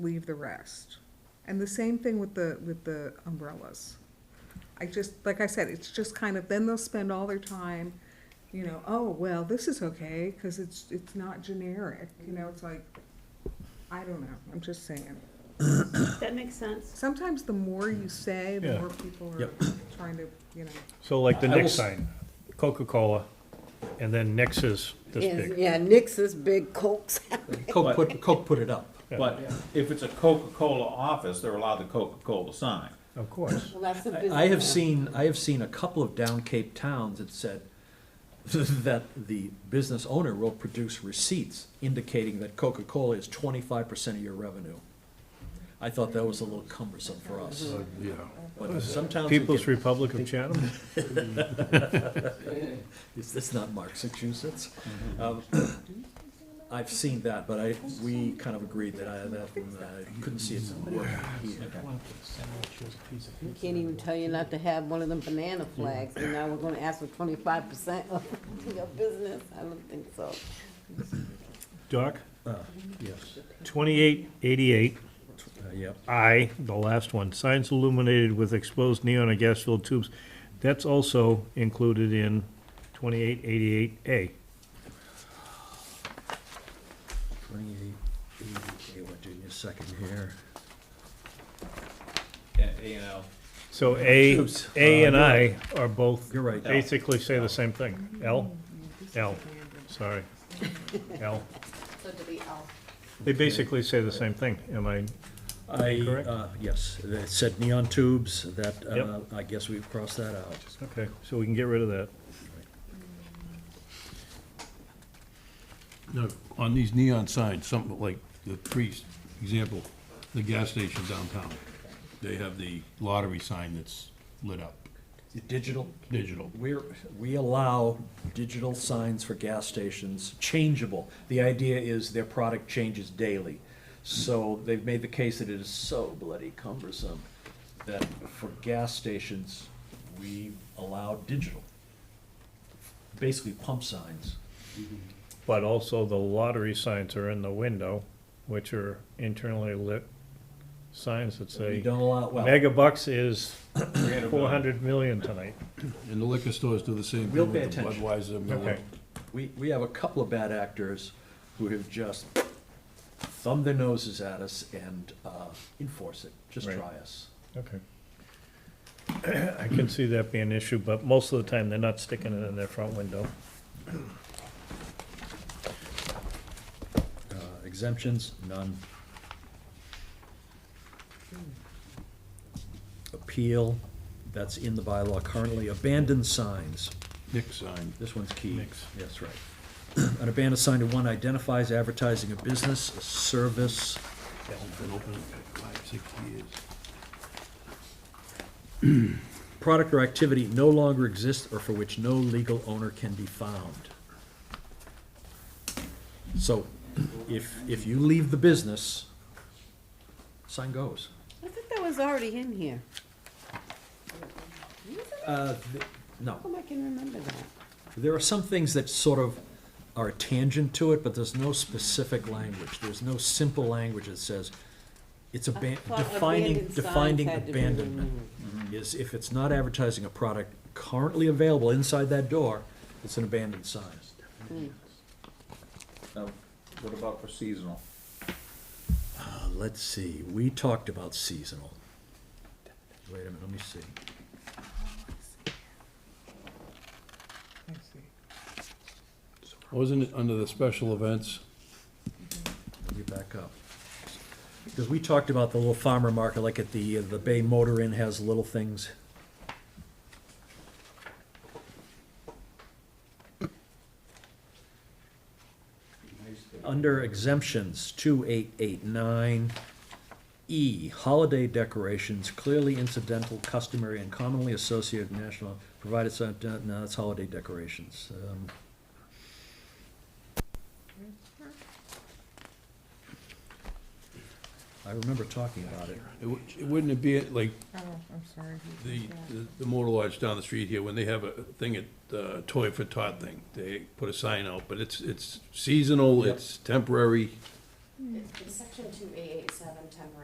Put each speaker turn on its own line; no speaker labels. leave the rest. And the same thing with the, with the umbrellas. I just, like I said, it's just kind of, then they'll spend all their time, you know, oh, well, this is okay, cause it's, it's not generic, you know, it's like, I don't know, I'm just saying.
That makes sense.
Sometimes the more you say, the
Yeah.
more people are
Yep.
trying to, you know.
So like the
I will
next
s-
sign, Coca-Cola, and then Nix is this
Yes,
big.
Yeah, Nix is big, Coke's.
Coke put, Coke put it up.
Yeah.
But if it's a Coca-Cola office, they're allowed the Coca-Cola sign.
Of course.
Well, that's a
I-
business.
I have seen, I have seen a couple of down Cape towns that said that the business owner will produce receipts indicating that Coca-Cola is twenty-five percent of your revenue. I thought that was a little cumbersome for us,
Yeah.
but sometimes. it
People's
can-
Republic of Chatham?
Is this not Massachusetts? Um, I've seen that, but I, we kind of agreed that I, that I couldn't see it working here.
We can't even tell you not to have one of them banana flags, and now we're gonna ask for twenty-five percent of your business? I don't think so.
Doc,
Uh, Yes.
twenty-eight eighty-eight,
Yep.
I, the last one, signs illuminated with exposed neon or gas-filled tubes. That's also included in twenty-eight eighty-eight A.
Twenty-eight, eighty, what, give me a second here.
Yeah, you know.
So A,
Oops.
A and
Uh,
I are both
You're right.
basically say the same thing. L, L, sorry, L.
So do we all
They basically say the same thing. Am I
I,
Correct?
uh, yes, it said neon tubes, that, uh,
Yep.
I guess we've crossed that out.
Okay, so we can get rid of that.
Now, on these neon signs, something like the trees, example, the gas station downtown, they have the lottery sign that's lit up,
Digital?
digital.
We're, we allow digital signs for gas stations, changeable. The idea is their product changes daily. So they've made the case that it is so bloody cumbersome that for gas stations, we allow digital. Basically pump signs.
But also the lottery signs are in the window, which are internally lit signs that
We
say,
don't allow, well,
mega bucks is four hundred million tonight.
And the liquor stores do the same
We'll
thing
pay
with the
attention.
Budweiser, Miller.
Okay.
we, we have a couple of bad actors who have just thumbed their noses at us and, uh, enforce it, just
Right.
try us.
Okay. I can see that being an issue, but most of the time, they're not sticking it in their front window.
Uh, Exemptions, none. Appeal, that's in the bylaw currently. Abandoned signs,
Nick sign.
this one's key.
Mix.
That's right. An abandoned sign to one identifies advertising a business, a service.
It's been open five, six years.
product or activity no longer exists or for which no legal owner can be found. So if, if you leave the business, sign goes.
I think that was already in here.
Uh, th-
How
No,
come I can remember that?
there are some things that sort of are a tangent to it, but there's no specific language. There's no simple language that says, it's aban-
I thought
defining,
abandoned signs
defining
had to be
abandonment.
removed.
Is if it's not advertising a product currently available inside that door, it's an abandoned sign.
Now, What about for seasonal?
Uh, Let's see, we talked about seasonal. Wait a minute, let me see.
I see.
Wasn't it under the special events?
Let me back up. Because we talked about the little farmer market, like at the, the Bay Motor Inn has little things. Under exemptions, two eight eight nine, E, holiday decorations, clearly incidental, customary, and commonly associated with national, provided, it's not- no, that's holiday decorations. Um, I remember talking about it.
It wou- it Wouldn't it be like
Oh, I'm sorry.
the, the- the motor lodge down the street here, when they have a thing at, uh, Toy for Tot thing, they put a sign out, but it's, it's seasonal,
Yep.
it's temporary.
It's in section two A eight seven, ten